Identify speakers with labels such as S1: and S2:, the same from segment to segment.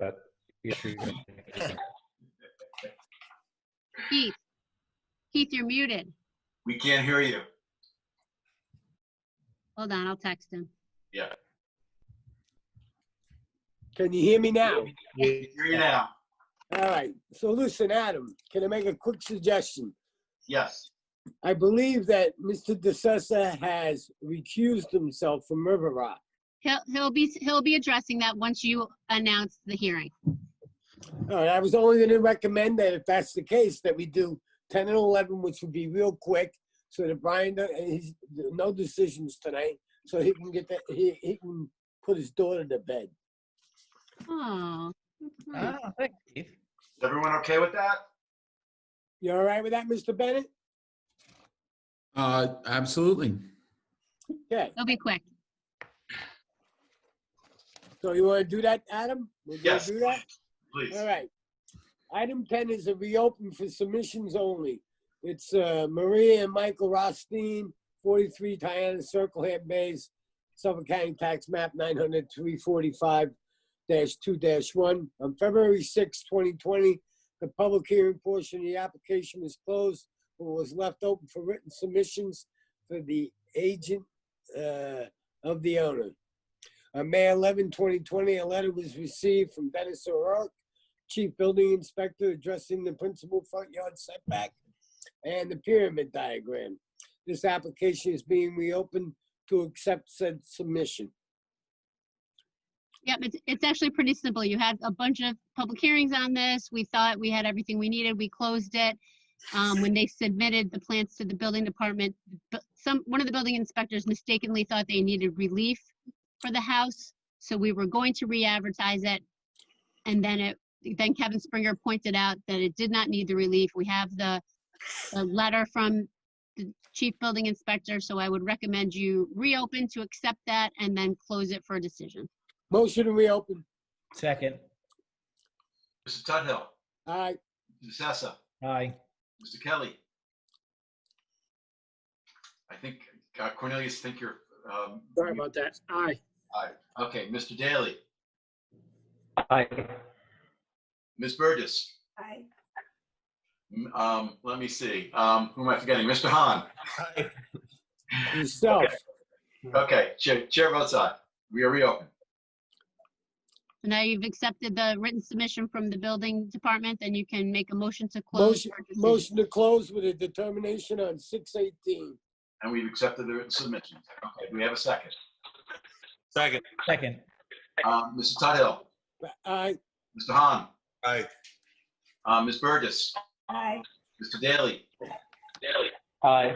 S1: that issue.
S2: Keith? Keith, you're muted.
S3: We can't hear you.
S2: Hold on, I'll text him.
S3: Yeah.
S4: Can you hear me now?
S3: We can hear you now.
S4: All right. So listen, Adam, can I make a quick suggestion?
S3: Yes.
S4: I believe that Mr. DeSessa has recused himself from River Rock.
S2: He'll, he'll be, he'll be addressing that once you announce the hearing.
S4: All right, I was only gonna recommend that if that's the case, that we do ten and eleven, which would be real quick, so that Brian, don't- and he's, no decisions tonight, so he can get that, he, he can put his daughter to bed.
S2: Oh.
S5: Oh, thanks, Keith.
S3: Is everyone okay with that?
S4: You all right with that, Mr. Bennett?
S6: Uh, absolutely.
S4: Okay,
S2: It'll be quick.
S4: so you wanna do that, Adam? We're gonna
S3: Yes.
S4: Do that?
S3: Please.
S4: All right. Item 10 is a reopen for submissions only. It's uh, Maria and Michael Rothstein, 43 Diana Circle, Hampton Bays, Suffolk County Tax Map 900-345-2-1. On February 6, 2020, the public hearing portion of the application was closed but was left open for written submissions for the agent uh, of the owner. On May 11, 2020, a letter was received from Dennis O'Rourke, Chief Building Inspector addressing the principal front yard setback and the pyramid diagram. This application is being reopened to accept said submission.
S2: Yep, it's, it's actually pretty simple. You had a bunch of public hearings on this. We thought we had everything we needed. We closed it. Um, when they submitted the plans to the building department, bu- some, one of the building inspectors mistakenly thought they needed relief for the house. So we were going to re-advertise it. And then it, then Kevin Springer pointed out that it did not need the relief. We have the, the letter from the chief building inspector. So I would recommend you reopen to accept that and then close it for a decision.
S4: Motion to reopen.
S5: Second,
S3: Mr. Tudhill,
S4: All right,
S3: Mr. Sessa,
S5: aye.
S3: Mr. Kelly. I think uh, Cornelius, think you're. um,
S7: Sorry about that. Aye.
S3: aye. Okay, Mr. Daly,
S1: Aye.
S3: Ms. Burgess. M- Um, let me see, um, who am I forgetting? Mr. Hahn.
S4: yourself.
S3: Okay, chair, chair votes aye. We are reopened.
S2: So now you've accepted the written submission from the building department, then you can make a motion to close. for decision.
S4: Motion to close with a determination on 618.
S3: And we've accepted the written submission. Okay, do we have a second?
S8: Second.
S5: Second,
S3: Um, Mr. Tudhill,
S4: All right,
S3: Mr. Hahn,
S8: Aye.
S3: uh, Ms. Burgess. Aye. Mr. Daly,
S1: Aye.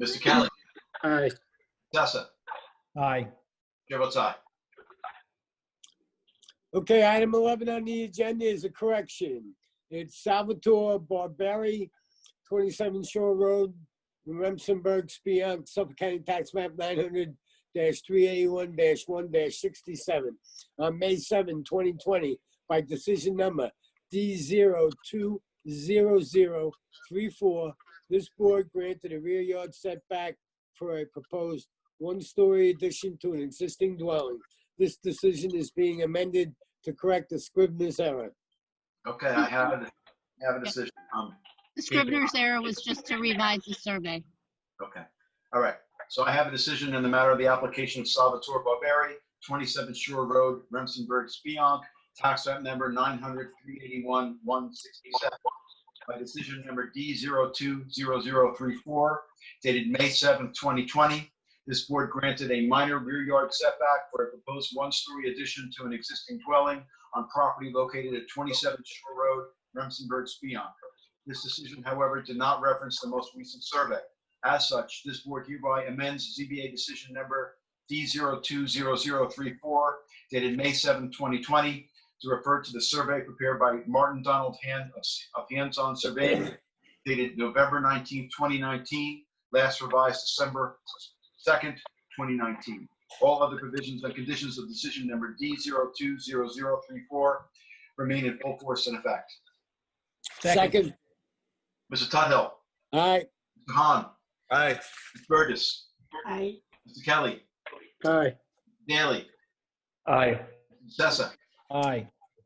S3: Mr. Kelly,
S7: Aye.
S3: Sessa,
S5: aye.
S3: chair votes aye.
S4: Okay, item 11 on the agenda is a correction. It's Salvatore Barberi, 27 Shore Road, Remsenburg, Speonk, Suffolk County Tax Map 900-381-1-67. On May 7, 2020, by decision number D020034, this board granted a rear yard setback for a proposed one-story addition to an existing dwelling. This decision is being amended to correct the Scrivener's error.
S3: Okay, I have a, I have a decision. Um,
S2: The Scrivener's error was just to revise the survey.
S3: okay. All right. So I have a decision in the matter of the application of Salvatore Barberi, 27 Shore Road, Remsenburg, Spionk, tax map number 900-381-167. By decision number D020034, dated May 7th, 2020, this board granted a minor rear yard setback for a proposed one-story addition to an existing dwelling on property located at 27 Shore Road, Remsenburg, Spionk. This decision, however, did not reference the most recent survey. As such, this board hereby amends ZBA decision number D020034 dated May 7, 2020, to refer to the survey prepared by Martin Donald Hand of of Hands On Surveying dated November 19, 2019, last revised December 2nd, 2019. All other provisions and conditions of decision number D020034 remain in full force and effect.
S4: Second.
S3: Mr. Tudhill,
S4: All right,
S3: Mr. Hahn,
S8: Aye.
S3: Ms. Burgess,
S7: Aye.
S3: Mr. Kelly,
S7: Aye.
S3: Daley,
S1: Aye.
S3: Sessa,
S5: Aye.